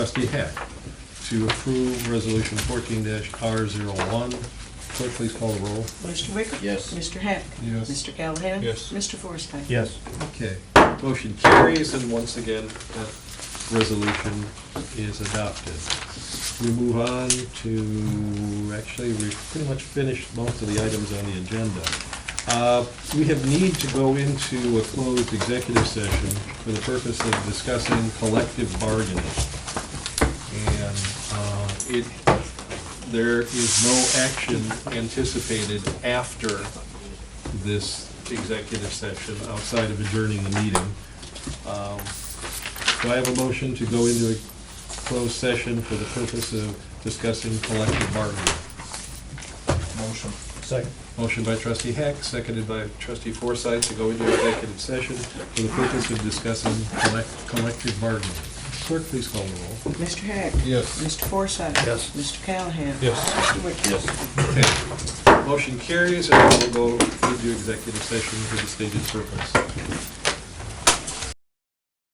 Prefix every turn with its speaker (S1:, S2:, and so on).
S1: Trustee Hack to approve resolution fourteen R zero one. Clerk, please call the roll.
S2: Mr. Wicker?
S3: Yes.
S2: Mr. Hack?
S1: Yes.
S2: Mr. Callahan?
S4: Yes.
S2: Mr. Forsythe?
S4: Yes.
S1: Okay, motion carries, and once again, that resolution is adopted. We move on to, actually, we've pretty much finished most of the items on the agenda. Uh, We have need to go into a closed executive session for the purpose of discussing collective bargaining. And uh, it, there is no action anticipated after this executive session outside of adjourning the meeting. Um, Do I have a motion to go into a closed session for the purpose of discussing collective bargaining?
S3: Motion.
S4: Second.
S1: Motion by trustee Heck, seconded by trustee Forsythe to go into executive session for the purpose of discussing collect- collective bargaining. Clerk, please call the roll.
S2: Mr. Hack?
S1: Yes.
S2: Mr. Forsythe?
S4: Yes.
S2: Mr. Callahan?
S4: Yes.
S2: Mr. Wicker?
S3: Yes.
S1: Motion carries, and we'll go into executive session for the stated purpose.